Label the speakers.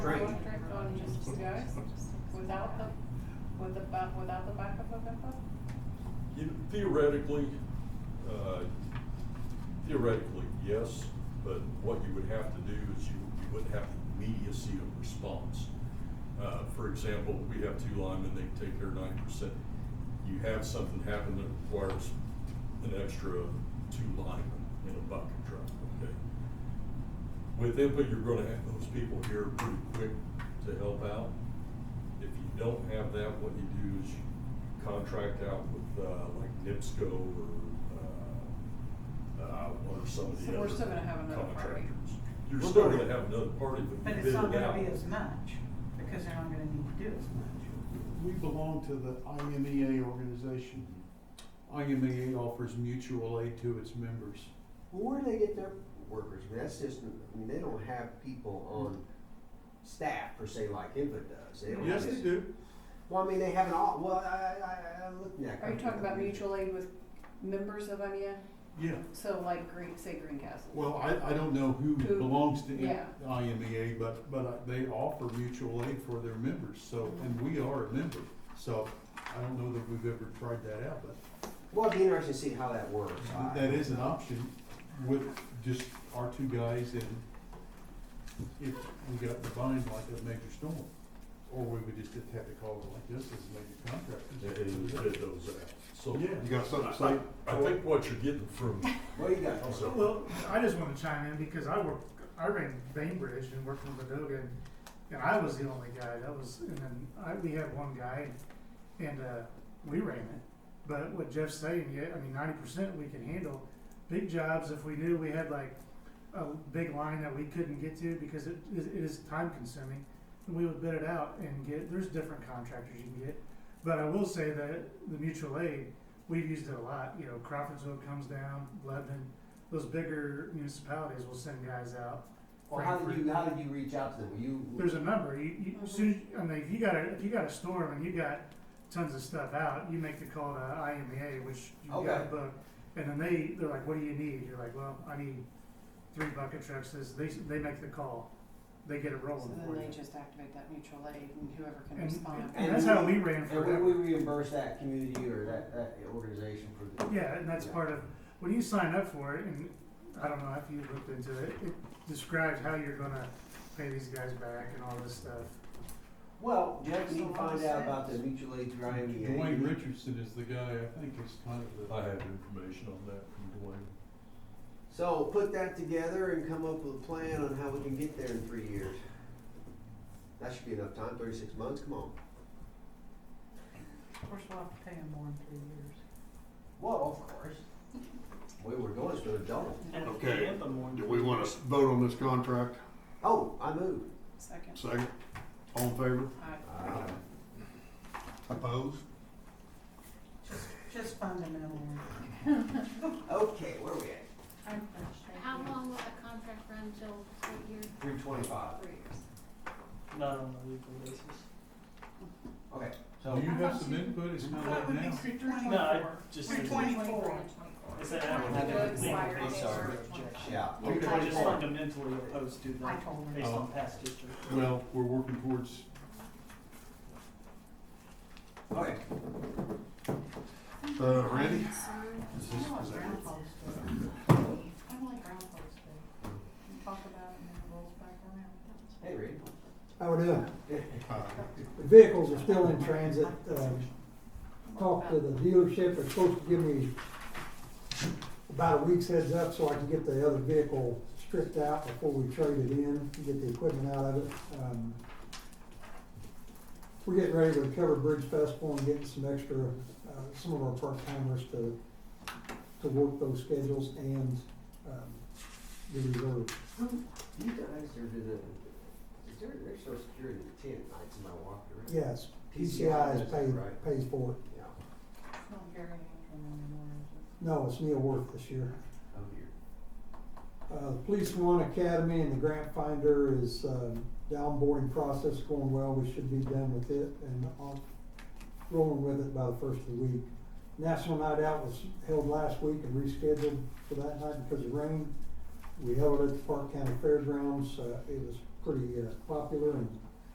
Speaker 1: great.
Speaker 2: electric on just two guys, without the, with the, ba- without the backup of info?
Speaker 3: You know, Theoretically, uh, theoretically, yes, but what you would have to do is you, you wouldn't have the immediacy of response. Uh, for example, we have two linemen, they take their nine percent. You have something happen that requires an extra two linemen in a bucket truck, okay? With IMPA, you're gonna have those people here pretty quick to help out. If you don't have that, what you do is you contract out with, uh, like NIPSCO or, uh, uh, or some of the
Speaker 2: So
Speaker 3: other
Speaker 2: we're still gonna have another party.
Speaker 3: contractors. You're
Speaker 1: We're
Speaker 3: still
Speaker 1: gonna-
Speaker 3: gonna have another party, but
Speaker 4: But
Speaker 3: you
Speaker 4: it's
Speaker 3: bid it out.
Speaker 4: not gonna be as much, because they're not gonna need to do as much.
Speaker 5: We belong to the IMEA organization. IMEA E offers mutual aid to its members.
Speaker 1: Well, where do they get their workers? I mean, that's just, I mean, they don't have people on staff per se like Inva does. They don't
Speaker 5: Yes,
Speaker 1: have-
Speaker 5: they do.
Speaker 1: Well, I mean, they have an, au- well, I, I, I, I'm looking at.
Speaker 2: Are you talking about mutual aid with members of Onion?
Speaker 5: Yeah.
Speaker 2: So like Green, say Greencastle?
Speaker 5: Well, I, I don't know who
Speaker 2: Who-
Speaker 5: belongs to
Speaker 2: yeah.
Speaker 5: IMEA, but, but I- they offer mutual aid for their members, so, and we are a member. So I don't know that we've ever tried that out, but
Speaker 1: Well, it'd be interesting to see how that works. I-
Speaker 5: that is an option with just our two guys and if we got combined like a major storm. Or we would just have to call it like this as a major
Speaker 3: And
Speaker 5: contractor.
Speaker 3: and bid those out. So.
Speaker 5: Yeah.
Speaker 6: You got something to say?
Speaker 3: I think what you're getting from,
Speaker 1: What do you got?
Speaker 3: Also-
Speaker 7: Well, I just want to chime in because I work, I ran Bainbridge and worked in Bedoga, and, and I was the only guy that was, and then I, we had one guy, and, and uh, we ran it. But what Jeff's saying, yeah, I mean, ninety percent we can handle. Big jobs, if we knew we had like a big line that we couldn't get to because it, it is time consuming, we would bid it out and get. There's different contractors you can get, but I will say that the mutual aid. We've used it a lot, you know. Crawfordsville comes down, Lebanon, those bigger municipalities will send guys out.
Speaker 1: Well, how did you, how did you reach out to them? Were you?
Speaker 7: There's a number. You, you
Speaker 2: Mm-hmm.
Speaker 7: as soon as- I mean, if you got a if you got a storm and you got tons of stuff out, you make the call to IMEA, which you got
Speaker 1: Okay.
Speaker 7: a book, and then they they're like, "What do you need?" You're like, "Well, I need three bucket trucks." This they they make the call, they get it
Speaker 2: So
Speaker 7: rolling
Speaker 2: then
Speaker 7: for
Speaker 2: they
Speaker 7: you.
Speaker 2: just activate that mutual aid and whoever can
Speaker 7: And-
Speaker 2: respond.
Speaker 7: And that's how we ran
Speaker 1: And we, we
Speaker 7: forever.
Speaker 1: reimburse that community or that, that organization for the.
Speaker 7: Yeah, and that's
Speaker 1: Yeah.
Speaker 7: part of when you sign up for it, and I don't know if you looked into it. It describes how you're gonna pay these guys back and all this stuff.
Speaker 1: Well, Jeff, you need to
Speaker 4: So what
Speaker 1: find
Speaker 4: is
Speaker 1: out
Speaker 4: that?
Speaker 1: about the E mutual aid through IMEA.
Speaker 5: Dwayne Richardson is the guy, I think is kind of the.
Speaker 3: I have information on that from Dwayne.
Speaker 1: So put that together and come up with a plan on how we can get there in three years. That should be enough time, thirty-six months, come on.
Speaker 4: Of course, we'll have to pay them more in three years.
Speaker 1: Well, of course. We were going, it's gonna double.
Speaker 6: Okay, do we wanna s- vote on this contract?
Speaker 1: Oh, I moved.
Speaker 2: Second.
Speaker 6: Second, all in favor?
Speaker 2: Aye.
Speaker 1: Ah,
Speaker 6: Opposed?
Speaker 4: Just fundamental.
Speaker 1: Okay, where are we at?
Speaker 4: I'm frustrated.
Speaker 8: How long will the contract run till what year?
Speaker 1: Three twenty-five.
Speaker 2: Three years.
Speaker 9: Not on a weekly basis.
Speaker 1: Okay,
Speaker 5: Do
Speaker 1: so
Speaker 5: you have some input? It's not like now.
Speaker 9: No, I just. It's an hour.
Speaker 1: That doesn't
Speaker 9: Legal
Speaker 1: matter. I'm
Speaker 9: basis.
Speaker 1: sorry. yeah.
Speaker 9: I'm
Speaker 1: three
Speaker 9: just
Speaker 1: twenty-four.
Speaker 9: fundamentally opposed to
Speaker 4: I
Speaker 9: that,
Speaker 4: told her.
Speaker 9: based
Speaker 5: Oh.
Speaker 9: on past history.
Speaker 5: Well, we're working towards,
Speaker 1: Okay,
Speaker 6: Uh, Randy?
Speaker 4: I
Speaker 6: Is this,
Speaker 4: want
Speaker 6: is that
Speaker 4: Groundhog's
Speaker 6: good?
Speaker 4: Day. I like Groundhog's Day. You talk about it and it rolls back around.
Speaker 1: hey, Reed.
Speaker 10: How we doing?
Speaker 6: Uh,
Speaker 10: The Vehicles are still in transit. Um, Talked to the dealership, they're supposed to give me about a week's heads up so I can get the other vehicle stripped out before we trade it in, get the equipment out of it. Um, We're getting ready to cover Bridge Festival and getting some extra, uh, some of our part-timers to, to work those schedules and um, the reserve.
Speaker 1: You guys are doing, is there, there's social security at ten nights in my walk around?
Speaker 10: Yes,
Speaker 1: PCI
Speaker 10: PCI is
Speaker 1: is
Speaker 10: paid,
Speaker 1: right.
Speaker 10: pays for it.
Speaker 1: Yeah,
Speaker 4: It's not Gary Antrim anymore, is it?
Speaker 10: No, it's Neil Worth this year.
Speaker 1: oh dear.
Speaker 10: Uh, the Police One Academy and the Grant Finder is, um, the onboarding process going well, we should be done with it and on, rolling with it by the first of the week. National Night Out was held last week and rescheduled for that night because of rain. We held it at the Park County Fairgrounds, uh, it was pretty uh, popular and